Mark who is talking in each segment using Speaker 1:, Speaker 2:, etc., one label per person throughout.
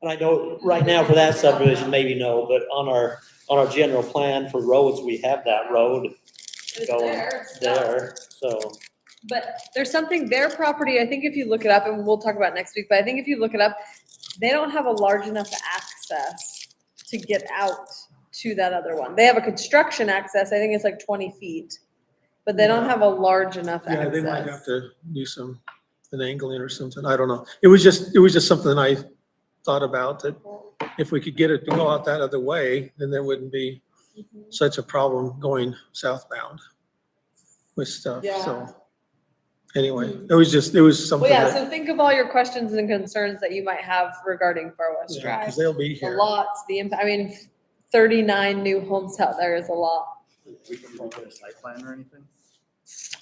Speaker 1: And I know, right now for that subdivision, maybe no, but on our, on our general plan for roads, we have that road
Speaker 2: It's
Speaker 1: Going
Speaker 2: there. it's done.
Speaker 1: there, so.
Speaker 2: But there's something, their property, I think if you look it up, and we'll talk about it next week, but I think if you look it up, they don't have a large enough access to get out to that other one. They have a construction access, I think it's like twenty feet, but they don't have a large enough
Speaker 3: Yeah, they might have
Speaker 2: access.
Speaker 3: to do some, an angling or something, I don't know. It was just, it was just something I thought about, that if we could get it to go out that other way, then there wouldn't be
Speaker 2: Mhm.
Speaker 3: such a problem going southbound with stuff,
Speaker 2: Yeah. Mm-hmm.
Speaker 3: so. Anyway, it was just, it was
Speaker 2: Well,
Speaker 3: something
Speaker 2: yeah,
Speaker 3: that,
Speaker 2: so think of all your questions and concerns that you might have regarding Far West
Speaker 3: because
Speaker 2: Drive.
Speaker 3: they'll be
Speaker 2: The
Speaker 3: here.
Speaker 2: lots, the, imp- I mean, thirty-nine new homes out there is a lot.
Speaker 4: We can look at a site plan or anything?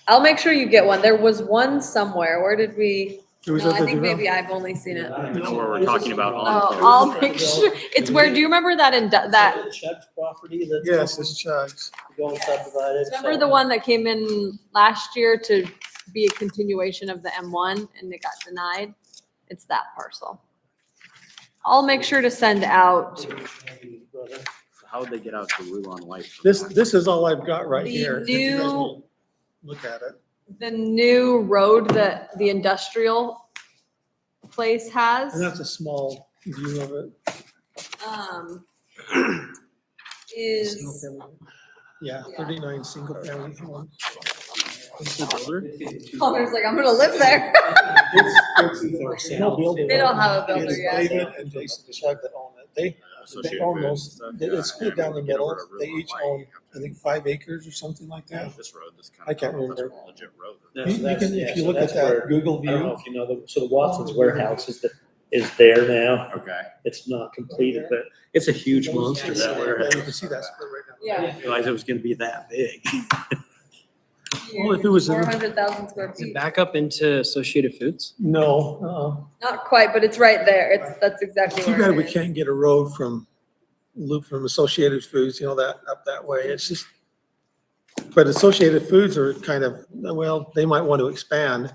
Speaker 2: I'll make sure you get one. There was one somewhere. Where did we?
Speaker 3: It was
Speaker 2: No,
Speaker 3: out
Speaker 2: I
Speaker 3: there,
Speaker 2: think
Speaker 3: you know?
Speaker 2: maybe I've only seen it.
Speaker 1: I don't
Speaker 4: even know
Speaker 1: know.
Speaker 4: where we're
Speaker 1: There's
Speaker 4: talking
Speaker 1: just
Speaker 4: about
Speaker 1: some-
Speaker 4: on
Speaker 2: Oh,
Speaker 4: there.
Speaker 2: I'll make sure. It's where, do you remember that in, that,
Speaker 1: Is it Chuck's property that's.
Speaker 3: Yes, it's Chuck's.
Speaker 1: Going subdivided.
Speaker 2: remember
Speaker 1: so-
Speaker 2: the one that came in last year to be a continuation of the M one and it got denied? It's that parcel. I'll make sure to send out
Speaker 1: Brother.
Speaker 4: How would they get out to Rulon White? from
Speaker 3: This,
Speaker 4: that?
Speaker 3: this is all I've got right
Speaker 2: The
Speaker 3: here. if you guys
Speaker 2: new-
Speaker 3: will Look at it.
Speaker 2: the new road that the industrial place
Speaker 3: And
Speaker 2: has.
Speaker 3: that's a small view of it.
Speaker 2: um,
Speaker 3: Single
Speaker 2: Is,
Speaker 3: family. Yeah,
Speaker 2: Yeah.
Speaker 3: thirty-nine single family home.
Speaker 2: Connor's like, I'm gonna live there.
Speaker 3: No building.
Speaker 2: They don't have a builder
Speaker 3: It's
Speaker 2: yet.
Speaker 3: David and Jason Chug that own it. They, they
Speaker 4: Associated
Speaker 3: own
Speaker 4: Foods and
Speaker 3: those,
Speaker 4: stuff,
Speaker 3: they-
Speaker 4: yeah,
Speaker 3: it's split
Speaker 4: and
Speaker 3: down the
Speaker 4: get
Speaker 3: middle.
Speaker 4: over to
Speaker 3: They
Speaker 4: Rulon
Speaker 3: each
Speaker 4: White,
Speaker 3: own,
Speaker 4: you
Speaker 3: I
Speaker 4: have to-
Speaker 3: think, five acres or something like that.
Speaker 4: This road, this kind
Speaker 3: I
Speaker 4: of.
Speaker 3: can't
Speaker 4: that's
Speaker 3: remember.
Speaker 4: a Legit
Speaker 3: You
Speaker 4: road.
Speaker 1: Yeah, so
Speaker 3: you
Speaker 1: that's-
Speaker 3: can,
Speaker 1: yeah,
Speaker 3: if you
Speaker 1: so
Speaker 3: look
Speaker 1: that's
Speaker 3: at that
Speaker 1: where-
Speaker 3: Google
Speaker 1: I don't know
Speaker 3: view,
Speaker 1: if you know, the- so the Watson's warehouse is the, is there now.
Speaker 4: Okay.
Speaker 1: It's not completed, but it's a huge monster, that
Speaker 3: yeah, you
Speaker 1: warehouse.
Speaker 3: can see that split right now.
Speaker 2: Yeah.
Speaker 1: Realized it was gonna be that big.
Speaker 3: Well, if it was
Speaker 2: Four
Speaker 3: ever-
Speaker 2: hundred thousand square
Speaker 5: Is it
Speaker 2: feet.
Speaker 5: back up into Associated Foods?
Speaker 3: No,
Speaker 2: Not quite, but it's right there. It's, that's
Speaker 3: uh-uh.
Speaker 2: exactly
Speaker 3: too bad
Speaker 2: where
Speaker 3: we
Speaker 2: it is.
Speaker 3: can't get a road from Loop, from Associated Foods, you know, that, up that way. It's just, but Associated Foods are kind of, well, they might want to expand.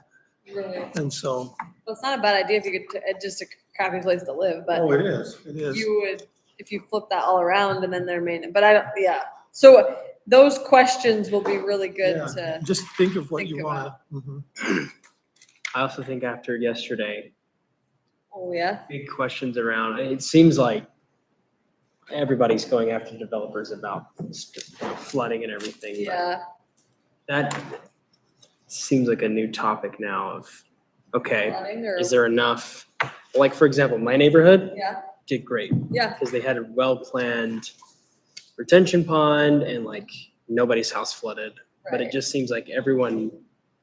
Speaker 2: Really.
Speaker 3: And so,
Speaker 2: Well, it's not a bad idea if you could, t- it's just a crappy place to live, but
Speaker 3: oh, it is, it is.
Speaker 2: you would, if you flip that all around and then they're main, but I don't, yeah. So those questions will be really good
Speaker 3: Yeah.
Speaker 2: to,
Speaker 3: Just think of what
Speaker 2: Think
Speaker 3: you mm-hmm. want to.
Speaker 5: I also think after yesterday,
Speaker 2: oh yeah.
Speaker 5: big questions around, it seems like everybody's going after developers about flooding and everything. but
Speaker 2: Yeah,
Speaker 5: That seems like a new topic now of, okay,
Speaker 2: flooding or,
Speaker 5: is there enough? Like, for example, my neighborhood
Speaker 2: yeah,
Speaker 5: did great.
Speaker 2: yeah,
Speaker 5: because they had a well-planned retention pond and like nobody's house flooded. But it
Speaker 2: right.
Speaker 5: just seems like everyone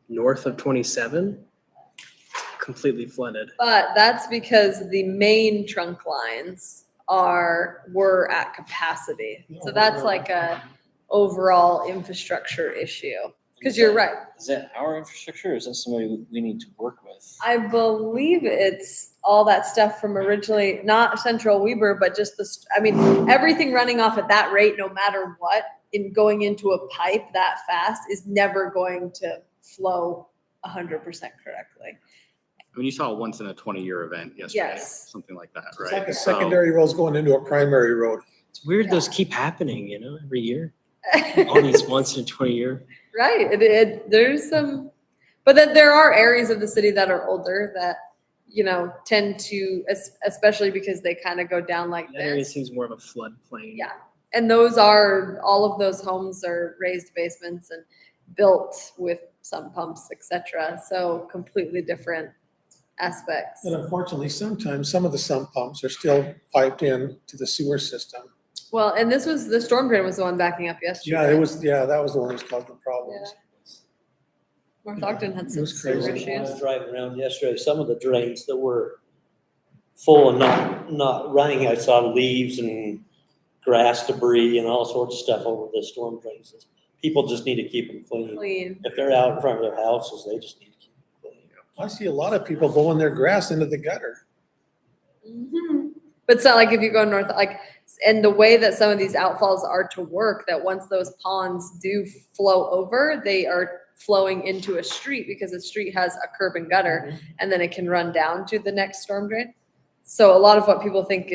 Speaker 5: north of 27 completely flooded.
Speaker 2: But that's because the main trunk lines are, were at capacity. So that's like a overall infrastructure issue. Cause you're right.
Speaker 6: Is that our infrastructure or is that somebody we- we need to work with?
Speaker 2: I believe it's all that stuff from originally, not Central Weber, but just the, st- I mean, everything running off at that rate, no matter what, in going into a pipe that fast is never going to flow a hundred percent correctly.
Speaker 4: I mean, you saw a once in a twenty-year event yesterday,
Speaker 2: Yes.
Speaker 4: something like that,
Speaker 3: It's like
Speaker 4: right?
Speaker 3: a
Speaker 4: So-
Speaker 3: secondary road's going into a primary road.
Speaker 5: It's weird those keep happening, you know, every year. All these
Speaker 2: Right,
Speaker 5: once in a 20 year.
Speaker 2: it, it, there's some, but then there are areas of the city that are older that, you know, tend to, es- especially because they kind of go down like
Speaker 5: That area
Speaker 2: this.
Speaker 5: seems more of a floodplain.
Speaker 2: Yeah. And those are, all of those homes are raised basements and built with sump pumps, et cetera. So completely different aspects.
Speaker 3: And unfortunately, sometimes some of the sump pumps are still piped in to the sewer system.
Speaker 2: Well, and this was, the storm drain was the one backing up yesterday.
Speaker 3: Yeah, it was, yeah, that was the one that's causing the problems.
Speaker 2: North Ogden had
Speaker 3: It
Speaker 2: some
Speaker 3: was
Speaker 2: sewer
Speaker 3: crazy.
Speaker 1: I
Speaker 2: issues.
Speaker 1: was driving around yesterday, some of the drains that were full and not, not running, I saw leaves and grass debris and all sorts of stuff over the storm drains. People just need to keep them clean.
Speaker 2: Clean.
Speaker 1: If they're out in front of their houses, they just need to keep them clean.
Speaker 3: I see a lot of people blowing their grass into the gutter.
Speaker 2: Mhm. But it's not like if you go north, like, and the way that some of these outfalls are to work, that once those ponds do flow over, they are flowing into a street because the street has a curb and gutter, and then it can run down to the next storm drain. So a lot of what people think